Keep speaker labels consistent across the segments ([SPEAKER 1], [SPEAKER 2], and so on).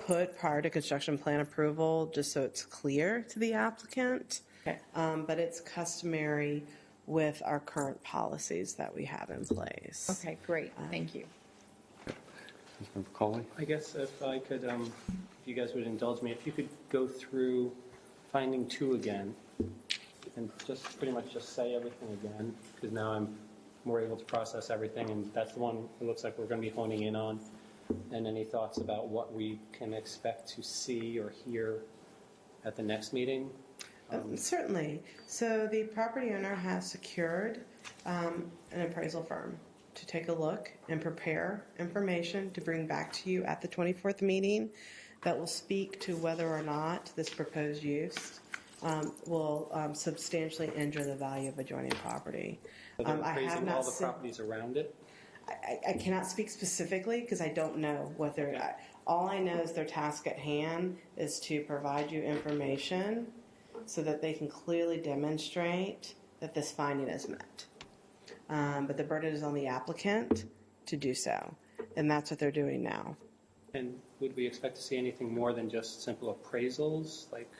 [SPEAKER 1] put prior to construction plan approval, just so it's clear to the applicant.
[SPEAKER 2] Okay.
[SPEAKER 1] Um, But it's customary with our current policies that we have in place.
[SPEAKER 2] Okay, great, thank you.
[SPEAKER 3] Councilmember Coley?
[SPEAKER 4] I guess if I could, um, if you guys would indulge me, if you could go through finding two again and just pretty much just say everything again, because now I'm more able to process everything and that's the one it looks like we're going to be honing in on. And any thoughts about what we can expect to see or hear at the next meeting?
[SPEAKER 1] Um, Certainly. So the property owner has secured um, an appraisal firm to take a look and prepare information to bring back to you at the 24th meeting that will speak to whether or not this proposed use um, will um, substantially injure the value of adjoining property.
[SPEAKER 4] Are they
[SPEAKER 1] Um, I have
[SPEAKER 4] appraising
[SPEAKER 1] not
[SPEAKER 4] all the
[SPEAKER 1] seen-
[SPEAKER 4] properties around it?
[SPEAKER 1] I, I cannot speak specifically because I don't know what they're.
[SPEAKER 4] Okay.
[SPEAKER 1] I- all I know is their task at hand is to provide you information so that they can clearly demonstrate that this finding is met. Um, but the burden is on the applicant to do so, and that's what they're doing now.
[SPEAKER 4] And would we expect to see anything more than just simple appraisals, like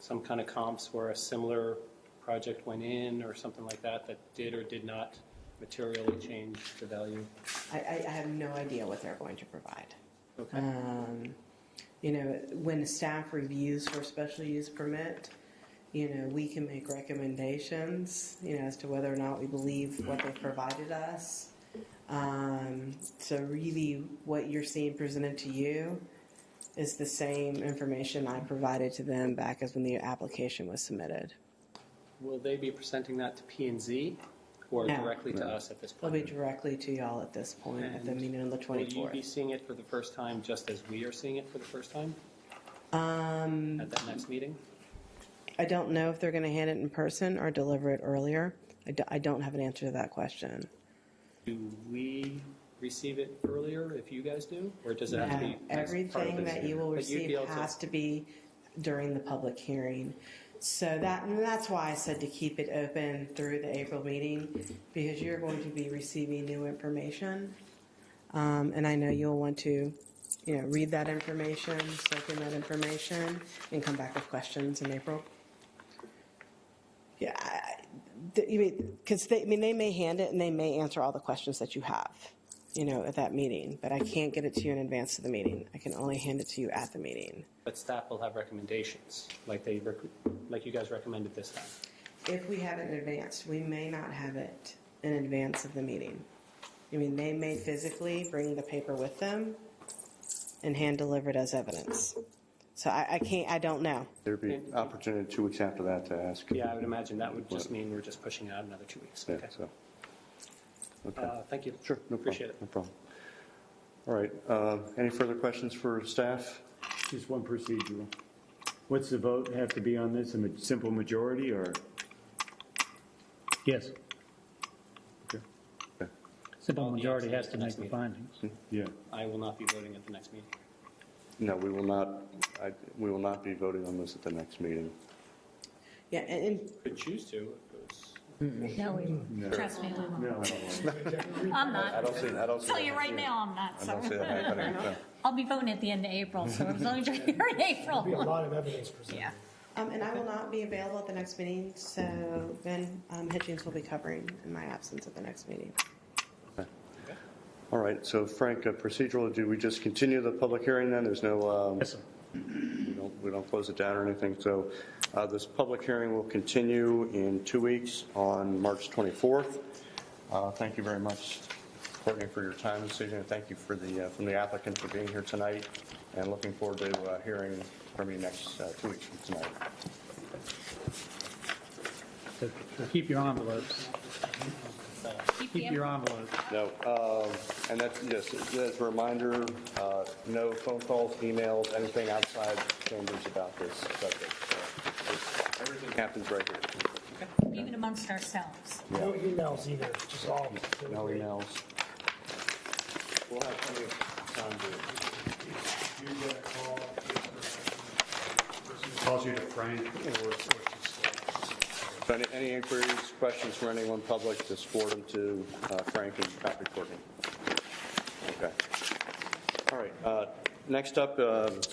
[SPEAKER 4] some kind of comps where a similar project went in or something like that, that did or did not materially change the value?
[SPEAKER 1] I, I, I have no idea what they're going to provide.
[SPEAKER 4] Okay.
[SPEAKER 1] Um, you know, when staff reviews for a special use permit, you know, we can make recommendations, you know, as to whether or not we believe what they've provided us. Um, so really, what you're seeing presented to you is the same information I provided to them back as when the application was submitted.
[SPEAKER 4] Will they be presenting that to P and Z or
[SPEAKER 1] No.
[SPEAKER 4] directly to us at this
[SPEAKER 1] I'll
[SPEAKER 4] point?
[SPEAKER 1] be directly to y'all at this point at the
[SPEAKER 4] And
[SPEAKER 1] meeting on the
[SPEAKER 4] Will you be
[SPEAKER 1] 24th.
[SPEAKER 4] seeing it for the first time, just as we are seeing it for the first time
[SPEAKER 1] Um,
[SPEAKER 4] at that next meeting?
[SPEAKER 1] I don't know if they're going to hand it in person or deliver it earlier. I, do, not have an answer to that question.
[SPEAKER 4] Do we receive it earlier if you guys do, or does it have to be? next part of
[SPEAKER 1] Everything
[SPEAKER 4] this?
[SPEAKER 1] that you will
[SPEAKER 4] But you'd be
[SPEAKER 1] receive
[SPEAKER 4] able to-
[SPEAKER 1] has to be during the public hearing. So that, and that's why I said to keep it open through the April meeting, because you're going to be receiving new information. Um, and I know you'll want to, you know, read that information, soak in that information, and come back with questions in April. Yeah, I- I- th- you mean, because they, I mean, they may hand it and they may answer all the questions that you have, you know, at that meeting, but I can't get it to you in advance of the meeting. I can only hand it to you at the meeting.
[SPEAKER 4] But staff will have recommendations, like they, rec- like you guys recommended this time.
[SPEAKER 1] If we have it in advance, we may not have it in advance of the meeting. I mean, they may physically bring the paper with them and hand deliver it as evidence. So I, I can't, I don't know.
[SPEAKER 3] There'd be opportunity two weeks after that to ask.
[SPEAKER 4] Yeah, I would imagine that would just mean we're just pushing it out another two weeks.
[SPEAKER 3] Yeah,
[SPEAKER 4] Okay.
[SPEAKER 3] so. Okay.
[SPEAKER 4] Uh, Thank you.
[SPEAKER 3] Sure, no problem.
[SPEAKER 4] Appreciate it.
[SPEAKER 3] No problem. All right, uh, any further questions for staff?
[SPEAKER 5] Just one procedural. What's the vote have to be on this, a ma- simple majority or?
[SPEAKER 6] Yes,
[SPEAKER 3] Okay.
[SPEAKER 6] simple
[SPEAKER 4] Well, the
[SPEAKER 6] majority
[SPEAKER 4] answer
[SPEAKER 6] has
[SPEAKER 4] is
[SPEAKER 6] to
[SPEAKER 4] the
[SPEAKER 6] make
[SPEAKER 4] next
[SPEAKER 6] the
[SPEAKER 4] meeting.
[SPEAKER 6] findings.
[SPEAKER 5] Yeah.
[SPEAKER 4] I will not be voting at the next meeting.
[SPEAKER 3] No, we will not, I- we will not be voting on this at the next meeting.
[SPEAKER 1] Yeah, and, and
[SPEAKER 4] Could choose to, if it was.
[SPEAKER 2] No, we, trust me,
[SPEAKER 5] No, I don't know.
[SPEAKER 2] I'm
[SPEAKER 3] I
[SPEAKER 2] not.
[SPEAKER 3] don't see, I don't see.
[SPEAKER 2] Tell you
[SPEAKER 3] that.
[SPEAKER 2] right now, I'm not,
[SPEAKER 3] I don't see
[SPEAKER 2] so.
[SPEAKER 3] that happening. so.
[SPEAKER 2] I'll be voting at the end of April, so as long as you're here in
[SPEAKER 7] Be a
[SPEAKER 2] April.
[SPEAKER 7] lot of evidence presented.
[SPEAKER 2] Yeah.
[SPEAKER 1] Um, and I will not be available at the next meeting, so Ben um, Hitchings will be covering in my absence at the next meeting.
[SPEAKER 3] All right, so Frank, uh, procedural, do we just continue the public hearing then? There's no, um,
[SPEAKER 6] Yes, sir.
[SPEAKER 3] we don't, we don't close it down or anything. So uh, this public hearing will continue in two weeks on March 24th. Uh, Thank you very much, Courtney, for your time this evening. Thank you for the, uh, from the applicant for being here tonight and looking forward to uh, hearing from you next, uh, two weeks from tonight.
[SPEAKER 6] So Keep your envelopes. Keep your envelopes.
[SPEAKER 3] No, um, and that's, yes, as a reminder, uh, no phone calls, emails, anything outside chambers about this subject. So it's- Everything happens right here.
[SPEAKER 2] Even amongst ourselves.
[SPEAKER 7] No emails either, just all.
[SPEAKER 3] No emails. We'll have plenty of time to.
[SPEAKER 8] you get a call, person calls you to Frank or, or to Steve.
[SPEAKER 3] So any, any inquiries, questions from anyone public, just forward them to uh, Frank and copy Courtney. Okay. All right, uh, next up, uh,